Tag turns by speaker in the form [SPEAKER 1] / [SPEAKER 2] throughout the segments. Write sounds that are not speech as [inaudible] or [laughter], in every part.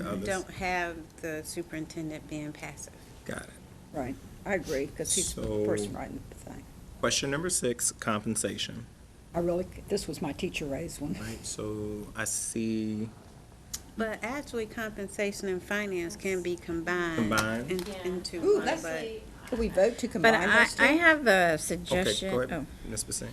[SPEAKER 1] others.
[SPEAKER 2] don't have the superintendent being passive.
[SPEAKER 1] Got it.
[SPEAKER 3] Right, I agree, because he's the
[SPEAKER 1] So-
[SPEAKER 3] person writing the thing.
[SPEAKER 1] Question number six, compensation.
[SPEAKER 3] I really, this was my teacher raised one.
[SPEAKER 1] Right, so I see
[SPEAKER 2] But actually, compensation and finance can be combined.
[SPEAKER 1] Combined?
[SPEAKER 2] in-
[SPEAKER 4] Yeah.
[SPEAKER 2] Into
[SPEAKER 3] Ooh,
[SPEAKER 2] one,
[SPEAKER 3] that's-
[SPEAKER 2] but,
[SPEAKER 3] Could we vote to
[SPEAKER 5] But
[SPEAKER 3] combine
[SPEAKER 5] I,
[SPEAKER 3] those two?
[SPEAKER 5] I have a
[SPEAKER 1] Okay, go
[SPEAKER 5] suggestion.
[SPEAKER 1] ahead,
[SPEAKER 5] Oh,
[SPEAKER 1] Ms. Basine.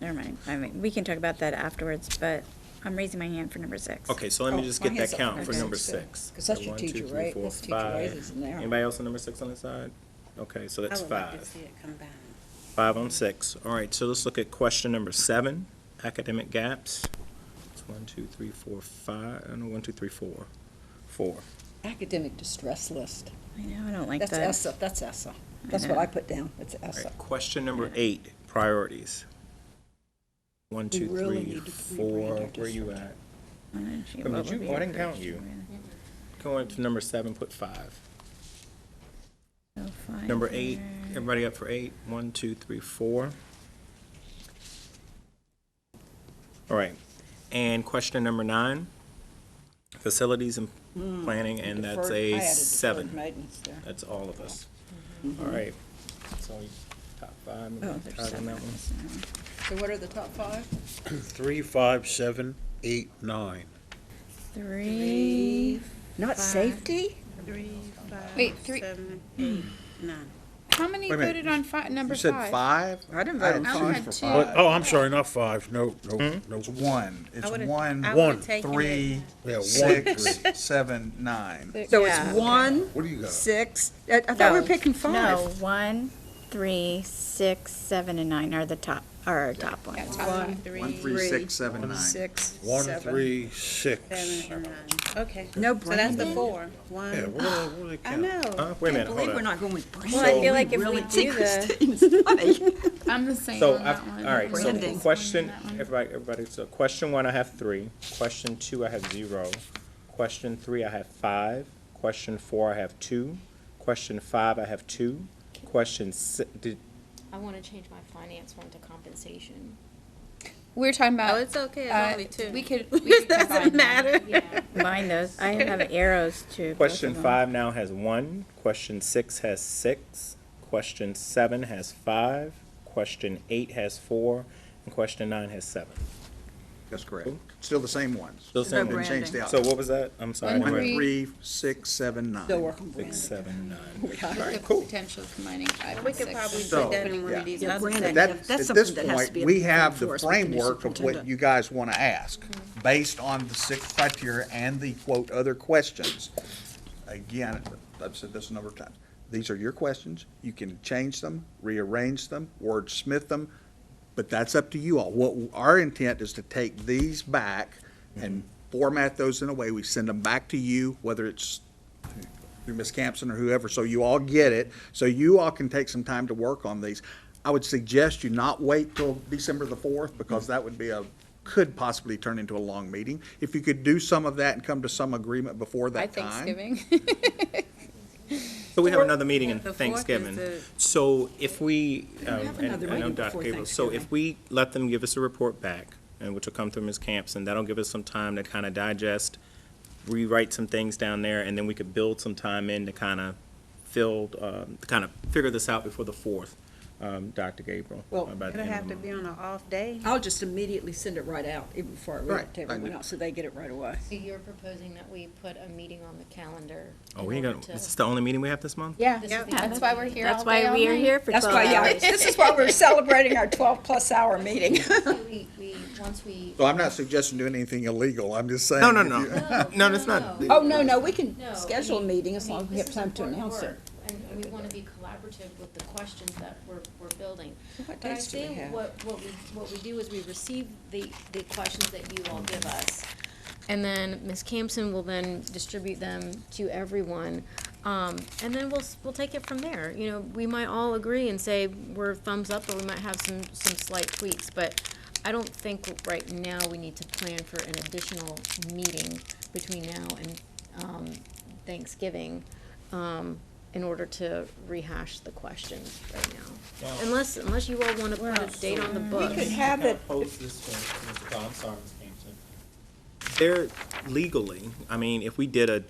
[SPEAKER 5] never mind. I mean, we can talk about that afterwards, but I'm raising my hand for number six.
[SPEAKER 1] Okay, so let me
[SPEAKER 3] Oh,
[SPEAKER 1] just
[SPEAKER 3] my
[SPEAKER 1] get that
[SPEAKER 3] hand's up.
[SPEAKER 1] count for
[SPEAKER 5] Okay.
[SPEAKER 1] number six.
[SPEAKER 3] Because that's
[SPEAKER 1] Okay,
[SPEAKER 3] your
[SPEAKER 1] one, two,
[SPEAKER 3] teacher
[SPEAKER 1] three,
[SPEAKER 3] rate-
[SPEAKER 1] four,
[SPEAKER 3] that's teacher
[SPEAKER 1] five.
[SPEAKER 3] raises in there.
[SPEAKER 1] Anybody else on number six on the side? Okay, so
[SPEAKER 2] I
[SPEAKER 1] that's
[SPEAKER 2] would like to
[SPEAKER 1] five.
[SPEAKER 2] see it combined.
[SPEAKER 1] Five on six. All right, so let's look at question number seven, academic gaps. It's one, two, three, four, five, uh, no, one, two, three, four. Four.
[SPEAKER 3] Academic distress list.
[SPEAKER 5] I know, I don't like
[SPEAKER 3] That's
[SPEAKER 5] that.
[SPEAKER 3] ESSA, that's ESSA. That's what I put down, it's
[SPEAKER 1] All
[SPEAKER 3] ESSA.
[SPEAKER 1] right, question number eight, priorities. One, two,
[SPEAKER 3] really
[SPEAKER 1] three,
[SPEAKER 3] need to rebrand
[SPEAKER 1] four,
[SPEAKER 3] our
[SPEAKER 1] where you at?
[SPEAKER 5] Why don't you
[SPEAKER 1] But did
[SPEAKER 5] go
[SPEAKER 1] you- oh,
[SPEAKER 5] over
[SPEAKER 1] I
[SPEAKER 5] your
[SPEAKER 1] didn't count
[SPEAKER 5] first
[SPEAKER 1] you.
[SPEAKER 5] one,
[SPEAKER 1] Going to number seven, put five.
[SPEAKER 5] really. So five
[SPEAKER 1] Number eight,
[SPEAKER 5] there.
[SPEAKER 1] everybody up for eight? One, two, three, four. All right, and question number nine, facilities and planning, and that's
[SPEAKER 3] Hmm. Deferred- I
[SPEAKER 1] a
[SPEAKER 3] added deferred Mm-hmm.
[SPEAKER 1] seven.
[SPEAKER 3] maintenance there.
[SPEAKER 1] That's all of us. All right, so top five, maybe
[SPEAKER 5] Oh, there's
[SPEAKER 1] tied on
[SPEAKER 5] seven.
[SPEAKER 1] that one.
[SPEAKER 5] That's not-
[SPEAKER 3] So what are the top five?
[SPEAKER 6] Three, five, seven, eight, nine.
[SPEAKER 5] Three.
[SPEAKER 3] Not safety?
[SPEAKER 2] Three, five,
[SPEAKER 7] Wait, three-
[SPEAKER 2] seven, eight, nine.
[SPEAKER 7] How many
[SPEAKER 6] Wait a minute.
[SPEAKER 7] voted on fi- number
[SPEAKER 6] You said five?
[SPEAKER 3] I didn't vote
[SPEAKER 6] I had
[SPEAKER 3] on
[SPEAKER 7] I
[SPEAKER 6] two
[SPEAKER 3] five.
[SPEAKER 7] had
[SPEAKER 6] for
[SPEAKER 7] two.
[SPEAKER 2] Uh,
[SPEAKER 6] five. Oh, I'm sorry, not five, no, no, no.
[SPEAKER 8] It's one, it's
[SPEAKER 2] I would've-
[SPEAKER 8] one,
[SPEAKER 2] I
[SPEAKER 7] One,
[SPEAKER 2] would've taken it.
[SPEAKER 8] three,
[SPEAKER 6] Yeah, one,
[SPEAKER 8] six, seven, nine.
[SPEAKER 3] So
[SPEAKER 5] Yeah.
[SPEAKER 3] it's one,
[SPEAKER 6] What do you got?
[SPEAKER 3] six, I I thought we were
[SPEAKER 5] No.
[SPEAKER 3] picking five.
[SPEAKER 5] No, one, three, six, seven, and nine are the top, are our top ones.
[SPEAKER 3] One,
[SPEAKER 8] One, three, six, seven, nine.
[SPEAKER 3] six,
[SPEAKER 6] One,
[SPEAKER 3] seven.
[SPEAKER 6] three, six.
[SPEAKER 2] Seven and nine, okay.
[SPEAKER 3] No
[SPEAKER 2] So that's the
[SPEAKER 3] brainer.
[SPEAKER 2] four.
[SPEAKER 6] Yeah,
[SPEAKER 2] One,
[SPEAKER 6] what do they, what do they
[SPEAKER 2] I
[SPEAKER 6] count?
[SPEAKER 2] know.
[SPEAKER 1] Uh, wait a minute, hold on.
[SPEAKER 3] not going with branding.
[SPEAKER 5] Well, I feel like if we do the,
[SPEAKER 7] I'm the same
[SPEAKER 1] So,
[SPEAKER 7] on
[SPEAKER 1] I've-
[SPEAKER 7] that one.
[SPEAKER 1] all right, so
[SPEAKER 3] Branding.
[SPEAKER 1] question, everybody, everybody, so question one, I have three. Question two, I have zero. Question three, I have five. Question four, I have two. Question five, I have two. Question si- did,
[SPEAKER 4] I want to change my finance one to compensation.
[SPEAKER 7] We're talking about.
[SPEAKER 2] Oh, it's okay,
[SPEAKER 7] uh,
[SPEAKER 2] it's only two. [laughs]
[SPEAKER 7] We could. We could combine
[SPEAKER 2] Doesn't
[SPEAKER 7] them.
[SPEAKER 2] matter.
[SPEAKER 4] Yeah.
[SPEAKER 1] [laughs]
[SPEAKER 5] combine those, I have arrows to. both
[SPEAKER 1] question
[SPEAKER 5] of them.
[SPEAKER 1] five now has one. Question six has six. Question seven has five. Question eight has four. And question nine has seven.
[SPEAKER 8] That's correct. Still the same ones.
[SPEAKER 1] Still the same
[SPEAKER 8] Didn't
[SPEAKER 1] ones.
[SPEAKER 8] change the
[SPEAKER 1] So
[SPEAKER 8] outcome.
[SPEAKER 1] what was that? I'm sorry. I
[SPEAKER 7] One,
[SPEAKER 8] One,
[SPEAKER 1] didn't write-
[SPEAKER 8] three, six, seven, nine.
[SPEAKER 3] Still working
[SPEAKER 1] Six,
[SPEAKER 3] branding.
[SPEAKER 1] seven, nine.
[SPEAKER 7] With
[SPEAKER 1] All
[SPEAKER 7] the
[SPEAKER 1] right, cool.
[SPEAKER 7] potential of combining five
[SPEAKER 2] We
[SPEAKER 7] and
[SPEAKER 2] could
[SPEAKER 7] six.
[SPEAKER 2] probably
[SPEAKER 8] So,
[SPEAKER 2] put that in one
[SPEAKER 8] yeah.
[SPEAKER 2] of these
[SPEAKER 3] Yeah,
[SPEAKER 2] other sections.
[SPEAKER 3] Brandon, that-
[SPEAKER 8] That,
[SPEAKER 3] that's
[SPEAKER 8] at
[SPEAKER 3] something
[SPEAKER 8] this
[SPEAKER 3] that has to be
[SPEAKER 8] point,
[SPEAKER 3] in
[SPEAKER 8] we
[SPEAKER 3] the
[SPEAKER 8] have the
[SPEAKER 3] force with the new
[SPEAKER 8] framework of what
[SPEAKER 3] superintendent.
[SPEAKER 8] you guys want to ask, based on the six criteria and the quote, other questions. Again, I've said this a number of times, these are your questions, you can change them, rearrange them, wordsmith them, but that's up to you all. What, our intent is to take these back and
[SPEAKER 1] Mm-hmm.
[SPEAKER 8] format those in a way, we send them back to you, whether it's through Ms. Campson or whoever, so you all get it, so you all can take some time to work on these. I would suggest you not wait till December the fourth,
[SPEAKER 1] Mm-hmm.
[SPEAKER 8] because that would be a, could possibly turn into a long meeting. If you could do some of that and come to some agreement before
[SPEAKER 7] By
[SPEAKER 8] that time.
[SPEAKER 7] Thanksgiving.
[SPEAKER 1] So we have another meeting in
[SPEAKER 2] The fourth is
[SPEAKER 1] Thanksgiving.
[SPEAKER 2] the-
[SPEAKER 1] So if we, um,
[SPEAKER 3] have
[SPEAKER 1] and
[SPEAKER 3] another
[SPEAKER 1] I know
[SPEAKER 3] meeting
[SPEAKER 1] Dr.
[SPEAKER 3] before
[SPEAKER 1] Gable, so if
[SPEAKER 3] Thanksgiving.
[SPEAKER 1] we let them give us a report back, and which will come through Ms. Camps, and that'll give us some time to kind of digest, rewrite some things down there, and then we could build some time in to kind of fill, um, to kind of figure this out before the fourth, um, Dr. Gabriel.
[SPEAKER 3] Well,
[SPEAKER 1] about the
[SPEAKER 2] It'll
[SPEAKER 1] end of
[SPEAKER 2] have
[SPEAKER 1] the
[SPEAKER 2] to
[SPEAKER 1] month.
[SPEAKER 2] be on an off day.
[SPEAKER 3] I'll just immediately send it right out, even before I read it
[SPEAKER 8] Right,
[SPEAKER 3] to
[SPEAKER 8] I
[SPEAKER 3] everyone
[SPEAKER 8] agree.
[SPEAKER 3] else, so they get it right away.
[SPEAKER 4] So you're proposing that we put a meeting on the calendar?
[SPEAKER 1] Oh,
[SPEAKER 4] in
[SPEAKER 1] we ain't
[SPEAKER 4] order
[SPEAKER 1] got, is
[SPEAKER 4] to-
[SPEAKER 1] this the only meeting we have this month?
[SPEAKER 7] yeah,
[SPEAKER 4] This is the
[SPEAKER 7] that's why we're here.
[SPEAKER 5] That's
[SPEAKER 7] all day,
[SPEAKER 5] why
[SPEAKER 7] all
[SPEAKER 5] we are
[SPEAKER 7] night.
[SPEAKER 5] here for
[SPEAKER 3] That's
[SPEAKER 5] twelve
[SPEAKER 3] why, yeah,
[SPEAKER 5] hours.
[SPEAKER 3] this is why we're celebrating our twelve-plus hour
[SPEAKER 4] [laughs]
[SPEAKER 3] meeting.
[SPEAKER 4] [laughs] We, we, once we.
[SPEAKER 8] So I'm not suggesting doing anything illegal, I'm just saying.
[SPEAKER 1] No, no,
[SPEAKER 8] if you-
[SPEAKER 1] no. [laughs] No, that's not.
[SPEAKER 3] Oh, no, no, we can
[SPEAKER 4] No, I
[SPEAKER 3] schedule a
[SPEAKER 4] mean-
[SPEAKER 3] meeting
[SPEAKER 4] I
[SPEAKER 3] as
[SPEAKER 4] mean,
[SPEAKER 3] long as we
[SPEAKER 4] this
[SPEAKER 3] have
[SPEAKER 4] is
[SPEAKER 3] time to
[SPEAKER 4] important
[SPEAKER 3] announce it.
[SPEAKER 4] work, And we want to be collaborative with the questions that we're, we're building.
[SPEAKER 3] What
[SPEAKER 4] But I
[SPEAKER 3] days do we
[SPEAKER 4] say
[SPEAKER 3] have?
[SPEAKER 4] What, what we, what we do is we receive the, the questions that you all give us. And then Ms. Campson will then distribute them to everyone. Um, and then we'll, s- we'll take it from there. You know, we might all agree and say we're thumbs up, or we might have some, some slight tweaks. But I don't think right now we need to plan for an additional meeting between now and, um, Thanksgiving, um, in order to rehash the questions right now. Unless, unless you all wanna put a date on the
[SPEAKER 3] We
[SPEAKER 4] book.
[SPEAKER 3] could have it,
[SPEAKER 1] They're legally, I mean, if we did a